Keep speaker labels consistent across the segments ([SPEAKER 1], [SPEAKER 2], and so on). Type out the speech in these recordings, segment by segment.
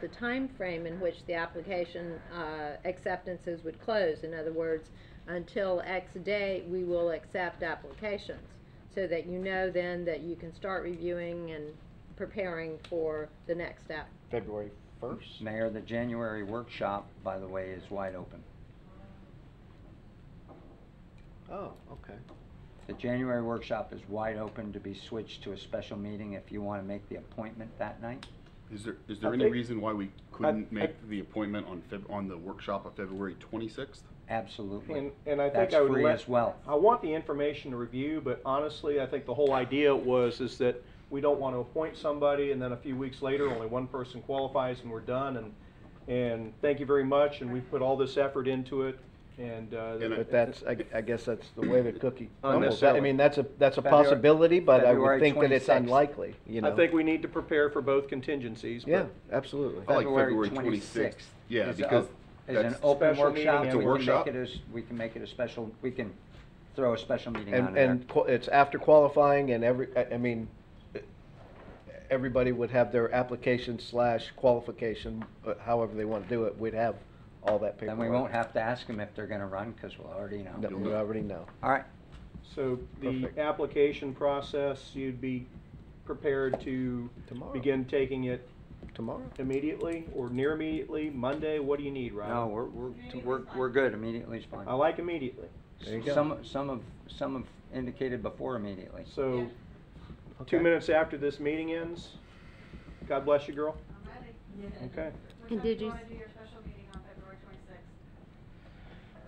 [SPEAKER 1] the time frame in which the application uh, acceptances would close. In other words, until X day, we will accept applications, so that you know then that you can start reviewing and preparing for the next step.
[SPEAKER 2] February first?
[SPEAKER 3] Mayor, the January workshop, by the way, is wide open.
[SPEAKER 2] Oh, okay.
[SPEAKER 3] The January workshop is wide open to be switched to a special meeting if you want to make the appointment that night.
[SPEAKER 4] Is there, is
[SPEAKER 2] I
[SPEAKER 4] there any
[SPEAKER 2] think-
[SPEAKER 4] reason why we couldn't
[SPEAKER 2] I-
[SPEAKER 4] make the appointment on Feb, on the workshop of February twenty-sixth?
[SPEAKER 3] Absolutely.
[SPEAKER 5] And, and I think
[SPEAKER 3] That's
[SPEAKER 5] I would
[SPEAKER 3] free
[SPEAKER 5] let-
[SPEAKER 3] as well.
[SPEAKER 5] I want the information to review, but honestly, I think the whole idea was is that we don't want to appoint somebody and then a few weeks later, only one person qualifies and we're done and, and thank you very much and we put all this effort into it and, uh.
[SPEAKER 4] And I-
[SPEAKER 2] But that's, I, I guess that's the way the cookie crumbles. I
[SPEAKER 5] Unnecessarily.
[SPEAKER 2] mean, that's a, that's a
[SPEAKER 3] February-
[SPEAKER 2] possibility, but I would
[SPEAKER 3] February
[SPEAKER 2] think that it's
[SPEAKER 3] 26th.
[SPEAKER 2] unlikely, you know?
[SPEAKER 5] I think we need to prepare for both contingencies, but.
[SPEAKER 2] Yeah, absolutely.
[SPEAKER 4] I like February
[SPEAKER 3] 26th.
[SPEAKER 4] 26th. Yeah,
[SPEAKER 3] is a-
[SPEAKER 4] because
[SPEAKER 3] Is an
[SPEAKER 4] that's-
[SPEAKER 3] open
[SPEAKER 5] Special meeting
[SPEAKER 3] workshop.
[SPEAKER 5] and- It's a
[SPEAKER 3] We can make
[SPEAKER 4] workshop?
[SPEAKER 3] it as- We can make it a special, we can throw a special meeting on
[SPEAKER 2] And,
[SPEAKER 3] there.
[SPEAKER 2] and qu- it's after qualifying and every, I, I mean, everybody would have their application slash qualification, uh, however they want to do it, we'd have all that
[SPEAKER 3] Then
[SPEAKER 2] paperwork.
[SPEAKER 3] we won't have to ask them if they're going to run because we'll already
[SPEAKER 2] No,
[SPEAKER 3] know.
[SPEAKER 2] we already know.
[SPEAKER 3] All right,
[SPEAKER 5] So the
[SPEAKER 2] Perfect.
[SPEAKER 5] application process, you'd be prepared to
[SPEAKER 2] Tomorrow.
[SPEAKER 5] begin taking it
[SPEAKER 2] Tomorrow?
[SPEAKER 5] immediately or near immediately, Monday? What do you need, Rob?
[SPEAKER 3] no, we're, we're, we're, we're good. Immediately is fine.
[SPEAKER 5] I like immediately.
[SPEAKER 2] There you go.
[SPEAKER 3] Some, some have, some have indicated before immediately.
[SPEAKER 5] So,
[SPEAKER 2] Okay.
[SPEAKER 5] two minutes after this meeting ends, God bless you, girl. Okay.
[SPEAKER 1] And
[SPEAKER 6] What time
[SPEAKER 1] did
[SPEAKER 6] do
[SPEAKER 1] you
[SPEAKER 6] you want
[SPEAKER 1] s-
[SPEAKER 6] to do your special meeting on February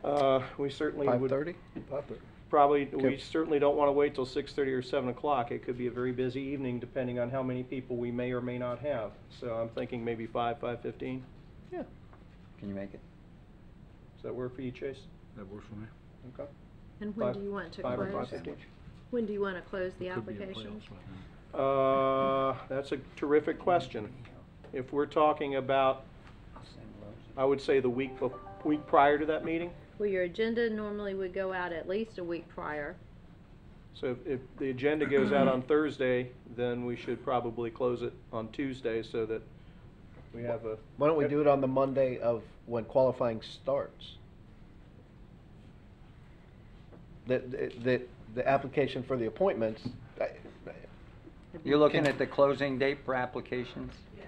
[SPEAKER 6] twenty-sixth?
[SPEAKER 5] Uh, we certainly
[SPEAKER 2] Five
[SPEAKER 5] would
[SPEAKER 2] thirty? Five thirty.
[SPEAKER 5] probably, we
[SPEAKER 2] Okay.
[SPEAKER 5] certainly don't want to wait till six thirty or seven o'clock. It could be a very busy evening depending on how many people we may or may not have. So I'm thinking maybe five, five fifteen.
[SPEAKER 2] Yeah.
[SPEAKER 3] Can you make it?
[SPEAKER 5] Does that work for you, Chase?
[SPEAKER 4] That works for me.
[SPEAKER 5] Okay.
[SPEAKER 1] And when
[SPEAKER 5] Five-
[SPEAKER 1] do you want to
[SPEAKER 5] Five or five
[SPEAKER 1] close?
[SPEAKER 5] fifteen.
[SPEAKER 1] When do you want to close the application?
[SPEAKER 5] Uh, that's a terrific question. If we're talking about,
[SPEAKER 3] I'll send Rose.
[SPEAKER 5] I would say the week, bef- week prior to that meeting,
[SPEAKER 1] Well, your agenda normally would go out at least a week prior.
[SPEAKER 5] So if, if the agenda goes out on Thursday, then we should probably close it on Tuesday so that we have a.
[SPEAKER 2] Why don't we do it on the Monday of when qualifying starts? That, that- that, the application for the appointments, I-
[SPEAKER 3] You're looking at the closing date for applications?
[SPEAKER 6] Yes.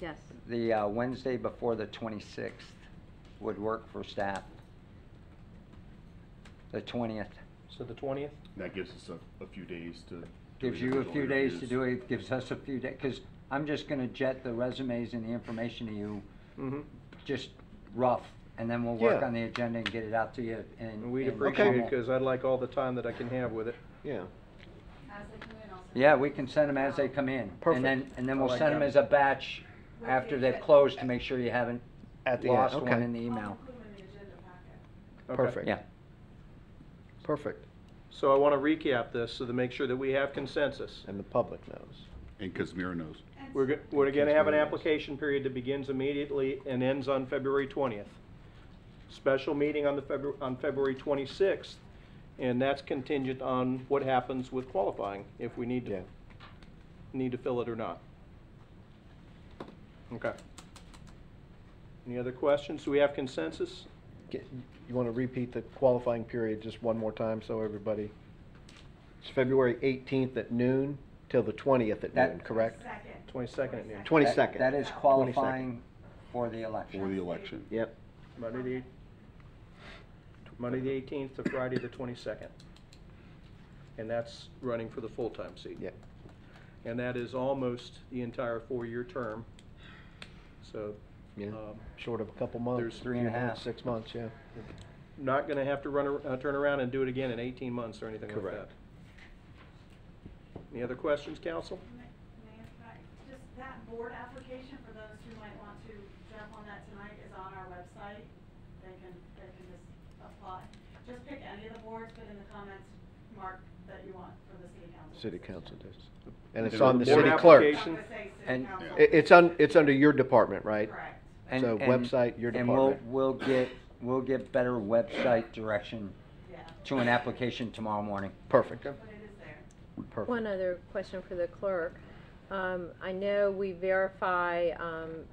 [SPEAKER 1] Yes.
[SPEAKER 3] The uh, Wednesday before the 26th would work for staff. The 20th
[SPEAKER 5] So the twentieth?
[SPEAKER 4] That gives us a, a few days to. do
[SPEAKER 3] gives
[SPEAKER 4] the
[SPEAKER 3] you a
[SPEAKER 4] original
[SPEAKER 3] few days to
[SPEAKER 4] interviews.
[SPEAKER 3] do it, gives us a few days, because I'm just going to jet the resumes and the information to you,
[SPEAKER 5] Mm-hmm.
[SPEAKER 3] just rough, and then we'll work
[SPEAKER 2] Yeah.
[SPEAKER 3] on the agenda and get it out to you and.
[SPEAKER 5] And we'd
[SPEAKER 3] and
[SPEAKER 5] appreciate it,
[SPEAKER 3] formal.
[SPEAKER 5] cause I'd like all the time that I can have with it.
[SPEAKER 2] yeah.
[SPEAKER 6] As they come in, I'll send
[SPEAKER 3] Yeah,
[SPEAKER 6] you-
[SPEAKER 3] we can send them as they come in.
[SPEAKER 2] Perfect.
[SPEAKER 3] And then, and then
[SPEAKER 2] I
[SPEAKER 3] we'll
[SPEAKER 2] like
[SPEAKER 3] send them
[SPEAKER 2] that.
[SPEAKER 3] as a batch after they've closed to make sure you haven't
[SPEAKER 2] At the end,
[SPEAKER 3] lost one
[SPEAKER 2] okay.
[SPEAKER 3] in the email.
[SPEAKER 6] I'll include them in the agenda packet.
[SPEAKER 5] Okay.
[SPEAKER 2] Perfect.
[SPEAKER 3] Yeah.
[SPEAKER 2] Perfect,
[SPEAKER 5] So I wanna recap this so to make sure that we have consensus.
[SPEAKER 2] and the public knows.
[SPEAKER 4] And Kazmira knows.
[SPEAKER 6] And
[SPEAKER 5] We're, go- we're gonna have an application period that begins immediately and ends on February twentieth. Special meeting on the February, on February twenty-sixth, and that's contingent on what happens with qualifying, if we need
[SPEAKER 2] Yeah.
[SPEAKER 5] to, need to fill it or not. Okay. Any other questions? Do we have consensus?
[SPEAKER 2] Get- You wanna repeat the qualifying period just one more time, so everybody? It's February eighteenth at noon till the twentieth at
[SPEAKER 3] That-
[SPEAKER 2] noon, correct?
[SPEAKER 6] Second.
[SPEAKER 5] Twenty-second at noon.
[SPEAKER 2] 22nd.
[SPEAKER 3] That that is
[SPEAKER 2] 22nd.
[SPEAKER 3] qualifying for the
[SPEAKER 4] For
[SPEAKER 3] election.
[SPEAKER 4] the election.
[SPEAKER 2] Yep.
[SPEAKER 5] Monday the, eight- Monday the eighteenth to Friday the twenty-second. And that's running for the full-time seat.
[SPEAKER 2] Yep.
[SPEAKER 5] And that is almost the entire four-year term. So,
[SPEAKER 2] Yeah,
[SPEAKER 5] um,
[SPEAKER 2] short of a couple months.
[SPEAKER 5] there's
[SPEAKER 3] three and a
[SPEAKER 2] few months,
[SPEAKER 3] half.
[SPEAKER 2] Six months, yeah.
[SPEAKER 5] not gonna have to run, ar- uh, turn around and do it again in eighteen months or anything like that.
[SPEAKER 2] Correct.
[SPEAKER 5] Any other questions, council?
[SPEAKER 6] Mayor, can I- Just that board application, for those who might want to jump on that tonight, is on our website. They can, they can just apply. Just pick any of the boards, put in the comments, mark that you want for the city council.
[SPEAKER 2] City council does. And it's
[SPEAKER 4] And
[SPEAKER 2] on the
[SPEAKER 4] the
[SPEAKER 2] city
[SPEAKER 5] board
[SPEAKER 2] clerk.
[SPEAKER 6] It's
[SPEAKER 5] application.
[SPEAKER 6] not gonna say city
[SPEAKER 3] And-
[SPEAKER 6] council.
[SPEAKER 2] It, it's on, it's under your department, right?
[SPEAKER 6] Correct.
[SPEAKER 3] And-
[SPEAKER 2] So
[SPEAKER 3] and-
[SPEAKER 2] website, your department.
[SPEAKER 3] And we'll, we'll get, we'll get better website direction
[SPEAKER 6] Yeah,
[SPEAKER 3] to an application tomorrow morning.
[SPEAKER 2] Perfect,
[SPEAKER 6] but it is there.
[SPEAKER 2] perfect.
[SPEAKER 1] One other question for the clerk. Um, I know we verify, um,